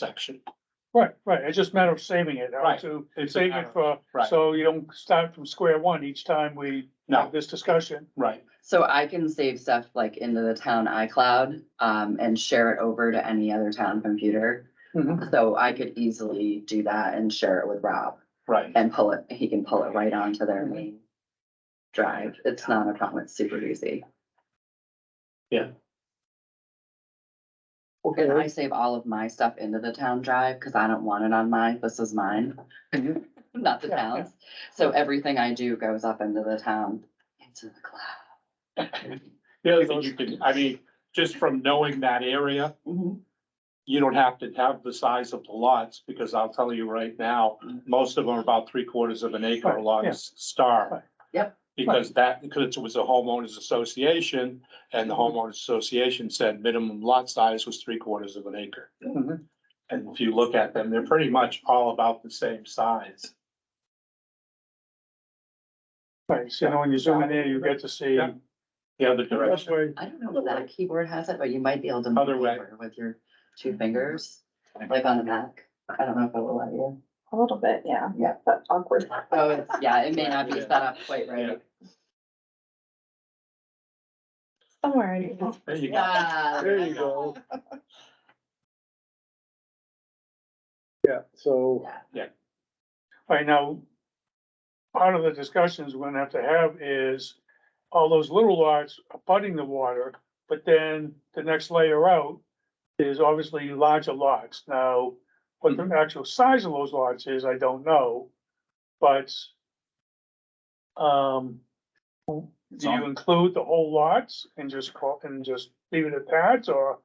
section. Right, right, it's just a matter of saving it, how Right. to It's a save matter it of- for, right. so you don't start from square one each time we No, have this discussion. right, So I can save stuff like into the town iCloud, um, and share it over to any other town computer. Mhm. So I could easily do that and share it with Rob right. and pull it, he can pull it right onto their Mm-hmm. main drive. It's not a problem, it's super easy. And I save all of my stuff into the town drive because I don't want it on mine. This is mine, not Mm-hmm. Yeah, the yeah. town's. So everything I do goes up into the town, into the cloud. The other thing you can, I mean, just from knowing that area, Mm-hmm. you don't have to have the size of the lots, because I'll tell you right now, most of them are about three quarters of an acre Mm-hmm. Right, lots yeah. Right. star. Yep. Because that, because it was a homeowners association, and the Mm-hmm. homeowners association said minimum lot size was three quarters of an acre. Mhm. And if you look at them, they're pretty much all about the same size. Right, so now when you zoom in there, you get to see. Yeah. The other That's direction, why, I don't know if that keyboard has it, but you might be able to. Other move way. Mm-hmm. over With your two fingers, like on a Mac. I don't know if it will let you. A little bit, yeah. Yeah. That's awkward. Oh, it's, yeah, it may not be set up quite right. Somewhere. in here. there you go. Yeah. There you go. Yeah, so, Yeah. right now, part of the discussions we're gonna have to have is all those little lots abutting the water, but then the next layer out is obviously larger lots. Now, what the actual size of those lots is, I don't know, but um, Do you include the whole lots and just call, and just leave it at that, or?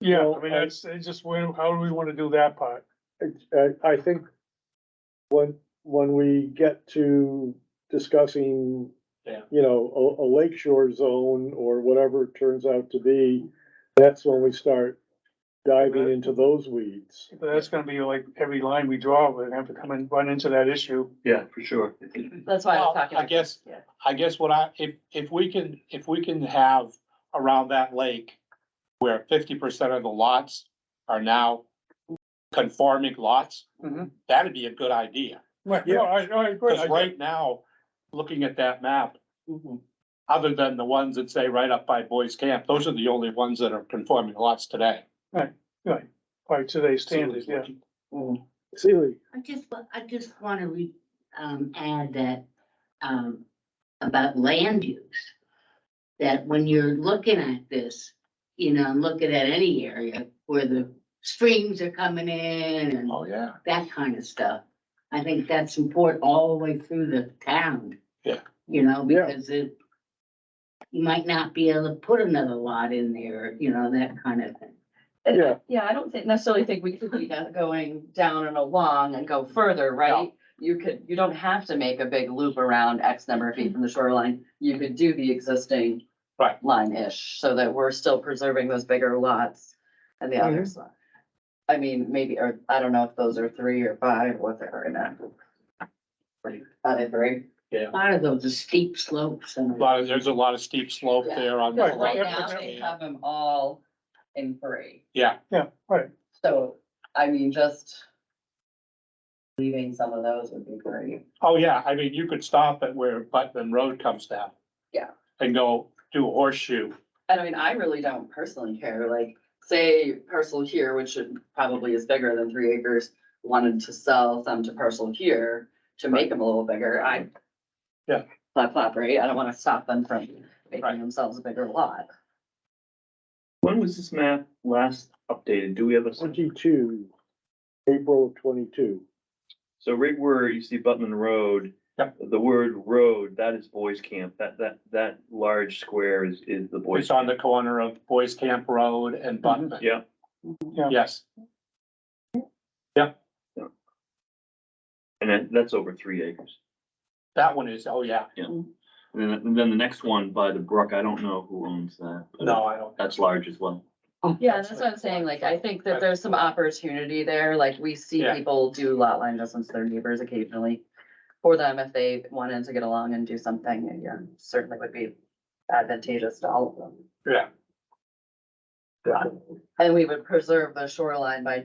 Yeah, I Well, mean, I- that's, it's just, where- how do we wanna do that part? uh, I, I think when, when we get to discussing, Yeah. you know, a, a lake shore zone or whatever it turns out to be, that's when we start diving Mhm. into those weeds. But That's gonna be like every line we draw, we're gonna have to come and run into that issue. Yeah, for sure. That's why I was Well, talking. I guess- Yeah. I guess what I, if, if we can, if we can have around that lake where fifty percent of the lots are now conforming lots, Mm-hmm. Mhm. that'd be a good idea. Right, no, I, no, I agree. I Because agree. right now, looking at that map, other than the ones that say right up by Boys Camp, those are the only ones that are conforming lots today. By today's standards, yeah. Mm. Seeley, I just, wa- I just want to re, um, add that, um, about land use. That when you're looking at this, you know, and looking at any area where the streams are coming in and Oh, yeah. that kind of stuff. I think that's important all the way through the town. Yeah. You know, Yeah. because it, you might not be able to put another lot in there, you know, that kind of thing. And Yeah. I- Yeah, I don't think- necessarily think we could be go- going down and along and go further, right? You could, you don't have to make a big loop around X number of feet from the shoreline. You could do the existing Right. line-ish, so that we're still preserving those bigger lots and the others. I mean, maybe, or I don't know if those are three or five, what they are now. Are they three? A lot of those are steep slopes A and. lot of, there's a lot of steep slope Yeah. there on. Right, Right right, now, they have them all in three. Yeah, Yeah, right. So, I mean, just leaving some of those would be great. oh, yeah, I mean, you could stop at where Putnam Road comes down. Yeah. And go do a horseshoe. And I mean, I really don't personally care, like, say parcel here, which should probably is bigger than three acres, wanted to sell some to parcel here to make them a little bigger, I. Yeah. Plop, plop, right? I don't wanna stop them from Right. making themselves a bigger lot. When was this map last updated? Do we have a, Oh, twenty-two, April of twenty-two. so right where you see Butman Road? Yep. The word road, that is boys camp. That, that, that large square is, is the boys. It's on the corner of Boys Camp Road and Button. Yeah. Yeah. Yes, And then that's over three acres. that one is, oh, yeah. And then, and then the next one by the brook, I don't know who owns that. but No, I don't. That's large as well. Yeah, that's what I'm saying, like, I think that there's some opportunity there, like, we see Yeah. people do lot line adjustments to their neighbors occasionally. For them, if they wanted to get along and do something, and, yeah, certainly would be advantageous to all of them. Yeah. definitely. And we would preserve the shoreline by